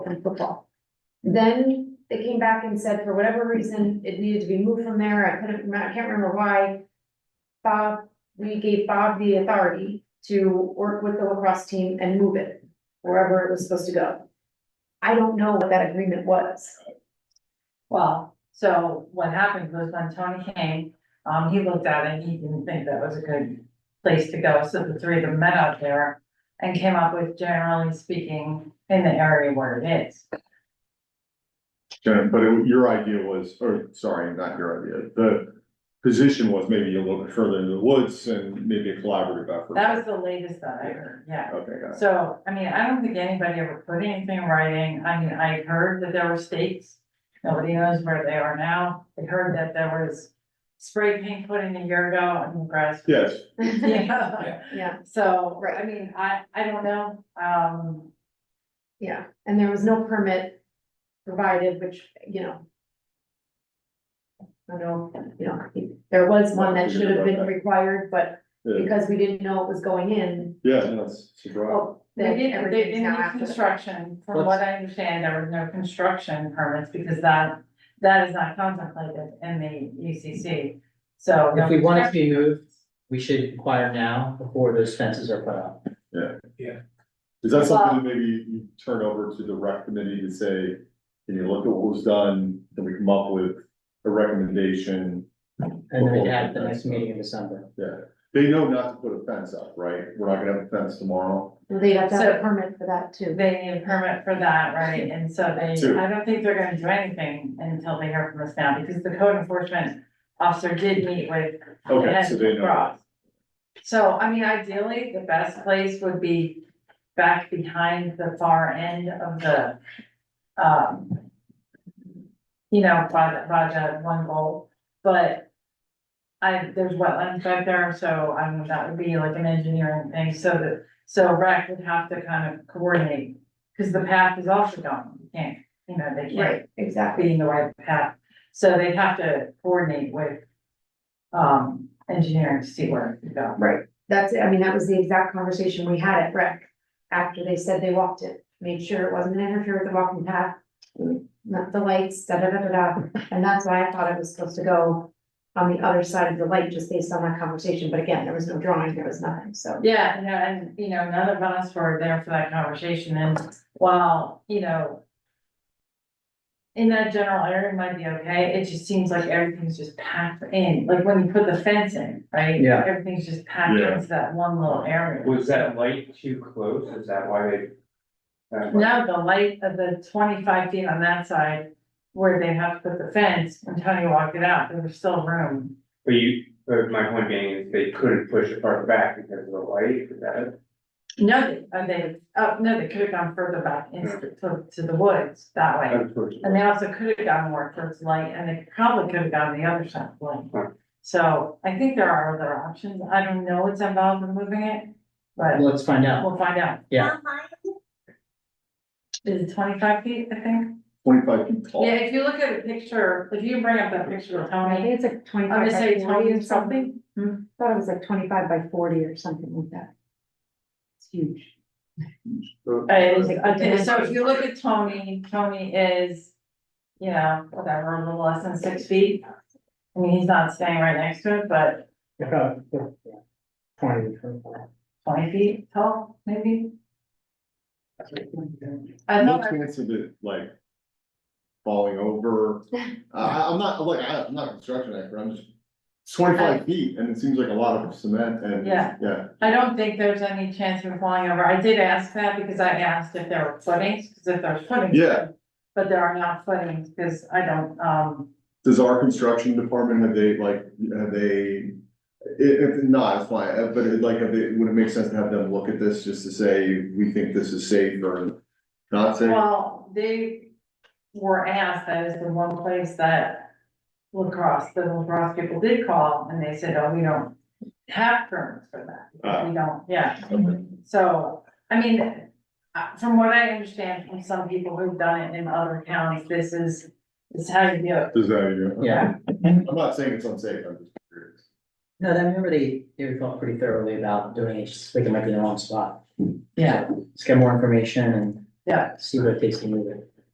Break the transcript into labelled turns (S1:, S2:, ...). S1: and football. Then they came back and said, for whatever reason, it needed to be moved from there, I couldn't, I can't remember why. Bob, we gave Bob the authority to work with the lacrosse team and move it wherever it was supposed to go. I don't know what that agreement was.
S2: Well, so what happened was when Tony came, um, he looked at it, he didn't think that was a good place to go, so the three of them met out there and came up with generally speaking in the area where it is.
S3: Yeah, but it- your idea was, or sorry, not your idea, the position was maybe a little bit further in the woods and maybe a collaborative effort.
S2: That was the latest that I heard, yeah.
S3: Okay, got it.
S2: So, I mean, I don't think anybody ever put anything in writing, I mean, I heard that there were stakes, nobody knows where they are now. I heard that there was spray paint put in a year ago and the grass.
S3: Yes,
S2: Yeah.
S1: Yeah,
S2: So,
S1: Right.
S2: I mean, I, I don't know, um,
S1: yeah, and there was no permit provided, which, you know. I don't know, you know, there was one that should have been required, but
S3: yeah,
S1: because we didn't know it was going in,
S3: yeah, no, it's it's a drive.
S1: Well,
S2: they
S1: then
S2: did, they
S1: everything's
S2: didn't
S1: now
S2: do
S1: after the fact.
S2: construction, from what I understand, there was no construction permits, because that, that is not contemplated in the UCC, so. no
S4: If we want it to be
S2: construction.
S4: moved, we should inquire now before those fences are put up.
S3: Is that something that maybe you turn over to the rec committee to say, can you look at what was done, can we come up with a recommendation?
S4: And then
S3: Before
S4: we'd
S3: we
S4: have
S3: put
S4: the next
S3: fence up.
S4: meeting in December.
S3: Yeah, they know not to put a fence up, right? We're not gonna have a fence tomorrow.
S1: Well, They have to have a
S2: So-
S1: permit for that too.
S2: They need a permit for that, right, and so they,
S3: Two.
S2: I don't think they're gonna do anything until they hear from us now, because the code enforcement officer did meet with
S3: Okay,
S2: And
S3: so they know.
S2: cross. Oh, So, I mean, ideally, the best place would be back behind the far end of the, um. You know, Raja, Raja one goal, but. I, there's wetlands back there, so I mean, that would be like an engineering thing, so that, so rec would have to kind of coordinate. Cause the path is also gone, you can't, you know, they can't
S1: Right, exactly.
S2: being the right path. So they'd have to coordinate with um engineering to see where to go.
S1: Right. That's, it. I mean, that was the exact conversation we had at rec, after they said they walked it, made sure it wasn't interfere with the walking path. Not the lights, da da da da da, and that's why I thought it was supposed to go on the other side of the light, just based on that conversation, but again, there was no drawing, there was nothing, so.
S2: Yeah, you know, and you know, none of us were there for that conversation and while, you know. In that general area might be okay, it just seems like everything's just packed in, like when you put the fence in, right?
S4: Yeah.
S2: Everything's just packed
S3: Yeah.
S2: into that one little area.
S5: Was that light too close? Is that why they? uh, that light-
S2: Now, the light of the twenty-five feet on that side, where they have to put the fence, when Tony walked it out, there was still room.
S5: But you, but my point being is they couldn't push it far back because of the light, is that?
S2: No, they, and they, oh, no, they could have gone further back into, to, to the woods that way. And they also could have gone more towards light, and they probably could have gone the other side of light.
S5: Right.
S2: So I think there are other options. I don't know what's involved in moving it, but
S4: Let's find out.
S2: we'll find out.
S4: Yeah.
S2: Is it twenty-five feet, I think?
S3: Twenty-five feet tall.
S2: Yeah, if you look at a picture, if you bring up that picture of
S1: Um, I think
S2: Tony,
S1: it's like
S2: I'm
S1: twenty-five
S2: gonna
S1: by
S2: say
S1: forty
S2: Tony
S1: or
S2: or
S1: something,
S2: something.
S1: thought it was like twenty-five by forty or something like that. It's huge.
S2: I was- okay, so if you look at Tony, Tony is, you know, whatever, a little less than six feet. I mean, he's not staying right next to it, but
S4: About, yeah, Twenty, twenty-five.
S2: twenty feet tall, maybe? I
S3: No
S2: thought, I-
S3: chance of it like falling over. I, I- I'm not, look, I- I'm not a construction expert, I'm just it's twenty-five feet and it seems like a lot of cement and,
S2: Yeah.
S3: yeah.
S2: I don't think there's any chance of flying over. I did ask that because I asked if there were footings, because if there's footings.
S3: Yeah.
S2: But there are not footings, because I don't, um,
S3: Does our construction department, have they like, have they, i- if not, it's fine, uh, but it, like, have they, would it make sense to have them look at this just to say, we think this is safe or not safe?
S2: well, they were asked, that is the one place that lacrosse, the lacrosse people did call, and they said, oh, we don't have permits for that. because We don't, yeah.
S3: Okay.
S2: So, I mean, uh, from what I understand from some people who've done it in other counties, this is, this is how you do it.
S3: Does that, yeah?
S4: Yeah.
S3: I'm not saying it's unsafe, I'm just curious.
S4: No, I remember they, they thought pretty thoroughly about doing it, just like it might be in the wrong spot. Let's get more information and
S2: Yeah.
S4: See where it takes to move it.